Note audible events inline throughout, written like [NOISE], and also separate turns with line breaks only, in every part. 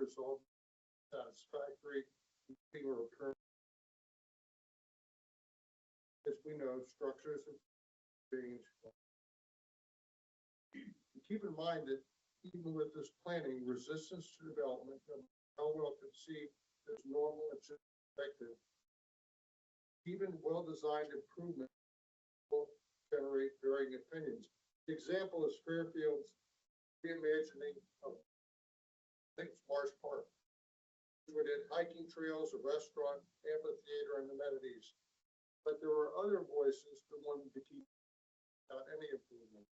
uh, satisfactory people occur. As we know, structures have changed. And Keep in mind that even with this planning, resistance to development, no matter how well conceived, is normal and should be expected. Even well-designed improvements will generate varying opinions. The Example is Fairfield's reimagining of Things Marsh Park. We did hiking trails, a restaurant, amphitheater, and amenities. But there were other voices that wanted to keep without any improvement.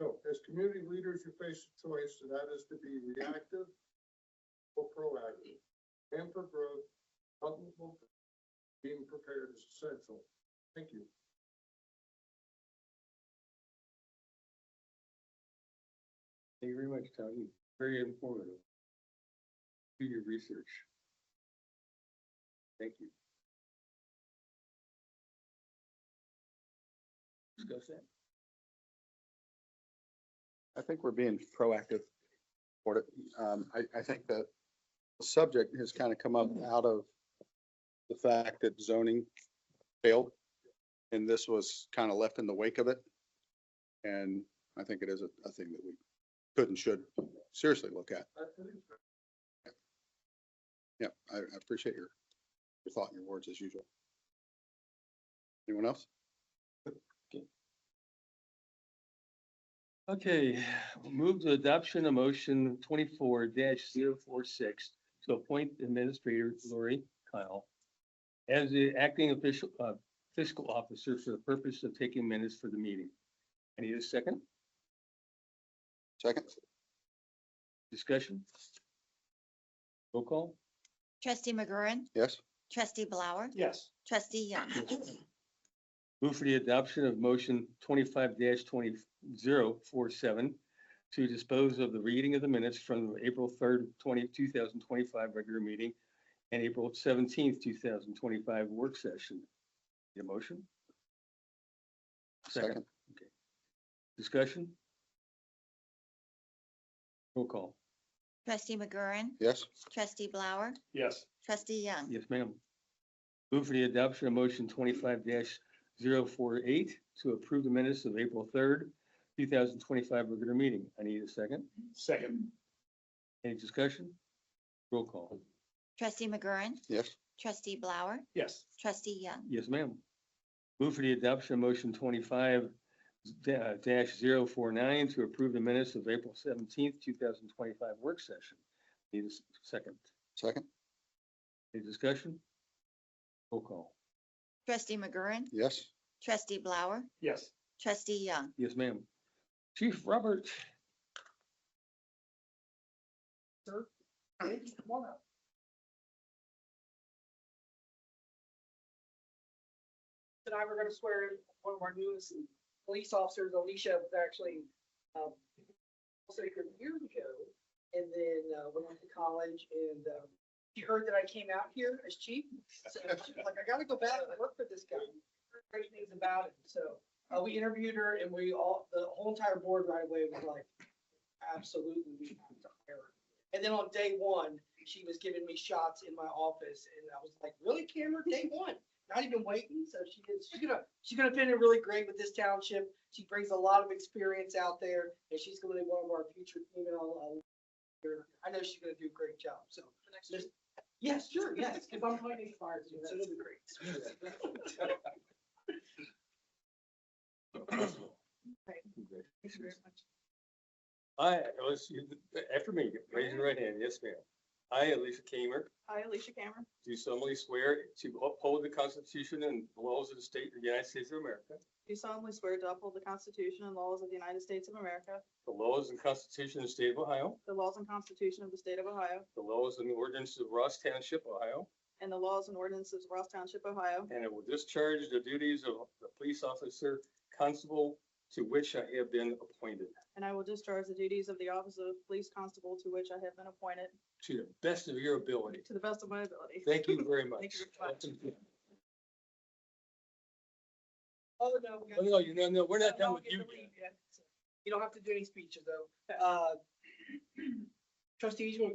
So as community leaders, you face a choice, and that is to be reactive or proactive. And for growth, comfortable, being prepared is essential. Thank you.
Thank you very much, Tony. Very informative. Do your research. Thank you. Discuss that.
I think we're being proactive. for it. Um, I, I think that the subject has kind of come up
Mm-hmm.
out of the fact that zoning failed. And this was kind of left in the wake of it. And I think it is a, a thing that we could and should seriously look at.
I think so.
Yeah, I, I appreciate your, your thought and your words as usual. Anyone else?
Okay, we'll move to adoption of motion twenty-four 46 to appoint Administrator Lori Kyle as the acting official, uh, fiscal officer for the purpose of taking minutes for the meeting. I need a second
Second?
discussion. Roll call?
Trustee McGurran,
Yes?
trustee Blower,
Yes.
trustee Young,
Move for the adoption of motion twenty-five 20 twenty zero four seven to dispose of the reading of the minutes from the April third, twenty, two thousand twenty-five regular meeting and April seventeenth, two thousand twenty-five work session. Need a motion? Second. Discussion? Roll call.
trustee McGurran,
Yes?
trustee Blower,
Yes.
trustee Young,
Yes, ma'am. Move for the adoption of motion twenty-five 48 to approve the minutes of April third, two thousand twenty-five regular meeting. I need a second.
Second.
Any discussion? Roll call.
trustee McGurran,
Yes?
trustee Blower,
Yes.
trustee Young,
Yes, ma'am. Move for the adoption of motion twenty-five da- dash zero four nine to approve the minutes of April seventeenth, two thousand twenty-five work session. Need a s- second.
Second?
Any discussion? Roll call.
trustee McGurran,
Yes?
trustee Blower,
Yes.
trustee Young,
Yes, ma'am. Chief Robert,
Come on up.
and I were gonna swear in one of our newest police officers, Alicia, was actually, um, also here years ago. And then, uh, went on to college and, um, she heard that I came out here as chief. So she was like, I gotta go back and work for this guy. Heard Great things about it. So, uh, we interviewed her and we all, the whole entire board right away was like, absolutely, we have to hire her. And then on day one, she was giving me shots in my office and I was like, really, Cameron, day one? not even waiting. So she is, she's gonna, she's gonna fit in really great with this township. She brings a lot of experience out there and she's gonna be one of our future female. uh, leader. I know she's gonna do a great job, so. just- Yes, sure, yes, because I'm fighting fires, so it'll be great.
I, let's, you- after me, raise your right hand. Yes, ma'am. I, Alicia Kamer,
I, Alicia Cameron,
do solemnly swear to uphold the Constitution and laws of the state of the United States of America,
do solemnly swear to uphold the Constitution and laws of the United States of America,
the laws and Constitution of the state of Ohio,
the laws and Constitution of the State of Ohio,
the laws and ordinances of Ross Township, Ohio,
and the laws and ordinances of Ross Township, Ohio,
and I will discharge the duties of the police officer constable to which I have been appointed,
and I will discharge the duties of the office of police constable to which I have been appointed
to the best of your ability.
to the best of my ability.
Thank you very much.
Thank you very much.
Oh, no. we
Oh,
got-
No, you know, no, we're not
No
done
one
with you.
gets to leave yet. You don't have to do any speeches though. Uh, [CLEARS THROAT] Trustees, you want to